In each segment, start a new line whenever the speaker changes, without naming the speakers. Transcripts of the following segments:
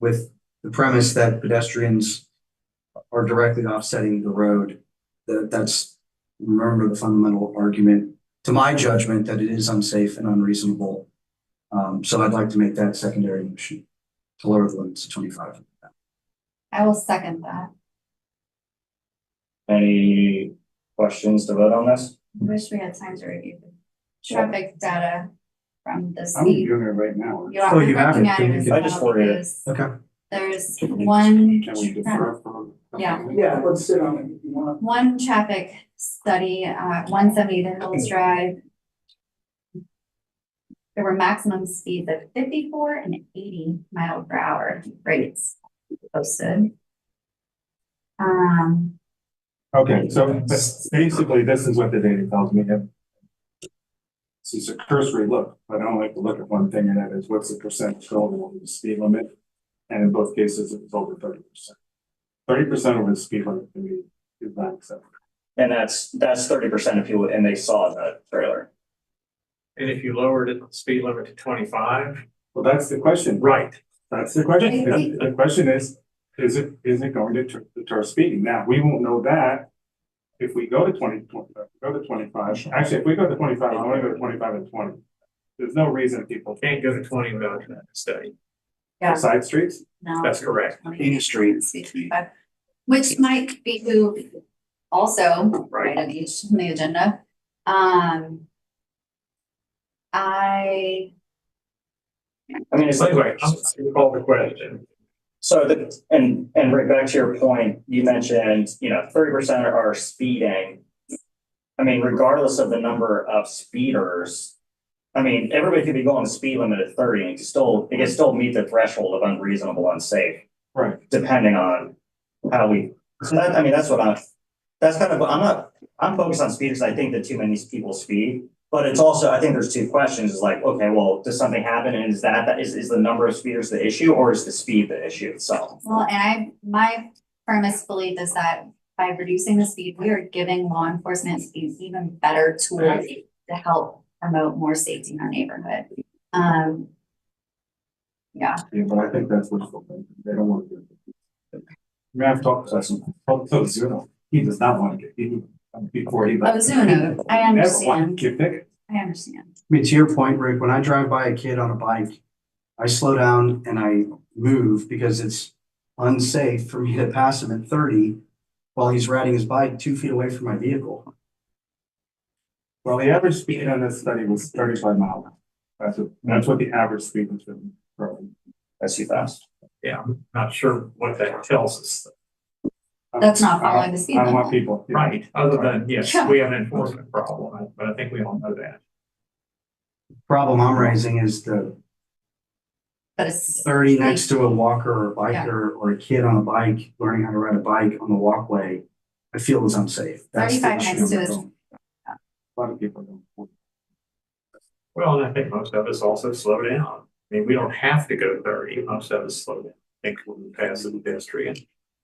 with the premise that pedestrians are directly offsetting the road. That, that's, remember the fundamental argument, to my judgment, that it is unsafe and unreasonable. Um, so I'd like to make that secondary motion to lower the limits to twenty-five.
I will second that.
Any questions to vote on this?
Wish we had time to review the traffic data from the
I'm
state.
doing it right now.
You are
Oh, you have
looking
it.
at it
I
as
just
well
ordered it.
because
Okay.
there's
Can we-
one,
Can we
tra-
defer for?
Yeah.
Yeah, let's sit on it if you want.
one traffic study, uh, one seventy to Hills Drive. There were maximum speeds of fifty-four and eighty mile per hour rates posted. Um,
Okay, so but basically, this is what the data tells me.
This is a cursory look, but I don't like to look at one thing and that is what's the percent shoulder over the speed limit? And in both cases, it's over thirty percent. Thirty percent over the speed limit can be, is not acceptable.
And that's, that's thirty percent of people, and they saw the trailer.
And if you lowered it, the speed limit to twenty-five?
Well, that's the question.
Right.
That's the question. The the question is, is it, is it going to deter- deter speeding? Now, we won't know that. If we go to twenty, twenty- go to twenty-five, actually, if we go to twenty-five, I wanna go to twenty-five and twenty. There's no reason people
Can't go to twenty without a study.
Yeah.
side streets.
no.
That's correct,
Any street.
Street. Which might be who also, right, on each, on the agenda, um. I,
I mean, it's like,
anyway, I'm, you call the question.
so the, and, and right back to your point, you mentioned, you know, thirty percent are speeding. I mean, regardless of the number of speeders, I mean, everybody could be going the speed limit at thirty and still, they could still meet the threshold of unreasonable, unsafe.
Right.
Depending on how we, so that, I mean, that's what I'm, that's kind of, I'm not, I'm focused on speed because I think that too many people speed. But it's also, I think there's two questions, is like, okay, well, does something happen and is that, that is, is the number of speeders the issue or is the speed the issue itself?
well, and I, my firmest belief is that by reducing the speed, we are giving law enforcement these even better tools to help promote more safety in our neighborhood. Um. Yeah,
Yeah, but I think that's what's going on. They don't want to do it. I mean, I've talked to some, talked to Zuno. He does not want to get, he, before he. left.
Ozuno, Oh, I
He never wanted
understand,
to Get tickets.
I understand,
I mean, to your point, Rick, when I drive by a kid on a bike, I slow down and I move because it's unsafe for me to pass him at thirty while he's riding his bike two feet away from my vehicle.
Well, the average speed on this study was thirty-five miles. That's what, that's what the average speed was in. Rome.
That's too fast.
Not sure what that tells us,
I'm-
that's not
Um, I don't-
following the speed
I don't want
limit.
people.
right, other than, yes, we have an enforcement problem, but I think we all know that.
Problem I'm raising is the
But it's,
thirty next to a walker or a
Yeah.
biker or a kid on a bike, learning how to ride a bike on the walkway, I feel is unsafe. That's the
35
issue
next to
I'm
is-
going.
A lot of people don't.
Well, and I think most of us also slow down. I mean, we don't have to go thirty, most of us slow down. I think when we pass the pedestrian.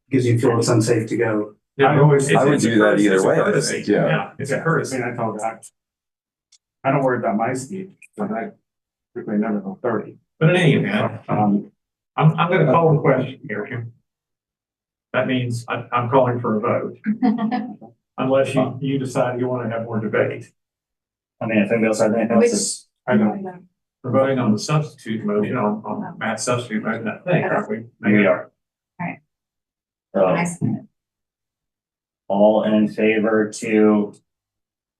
Because you feel it's unsafe to go.
I always-
No,
I
it's-
would
it's a
do that
courtesy-
either
it's a
way, I
courtesy.
think, yeah.
It's a
I
courtesy.
mean, I told her, I I don't worry about my speed, but I typically never go thirty.
But in any event,
Um,
I'm, I'm gonna call the question here. That means I'm, I'm calling for a vote, unless you, you decide you wanna have more debate.
I mean, if anybody else has anything else, it's-
I don't,
We're voting on the substitute motion, on, on Matt's substitute motion, I think, aren't we?
we are.
Alright.
So,
Nice.
uh,
Um,
all in favor to,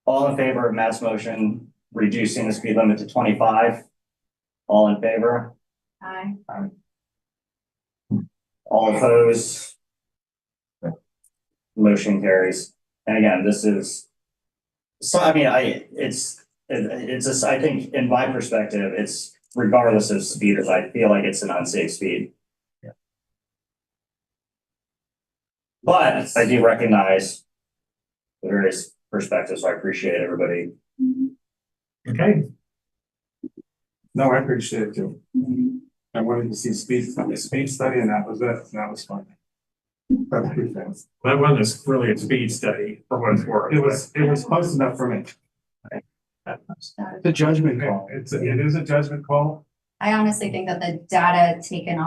all in favor of Matt's motion, reducing the speed limit to twenty-five? All in favor?
Aye.
All opposed? Motion carries. And again, this is. So I mean, I, it's, it- it's just, I think in my perspective, it's regardless of speed, if I feel like it's an unsafe speed. But I do recognize. The various perspectives, so I appreciate everybody.
Okay,
no, I appreciate it too. I wanted to see speed, study- speed study and that was it, and that was fun. That's pretty fast.
that one is really a speed study for what it's worth.
It was, it was close enough for me.
The judgment call.
It's, a- it is a judgment call.
I honestly think that the data taken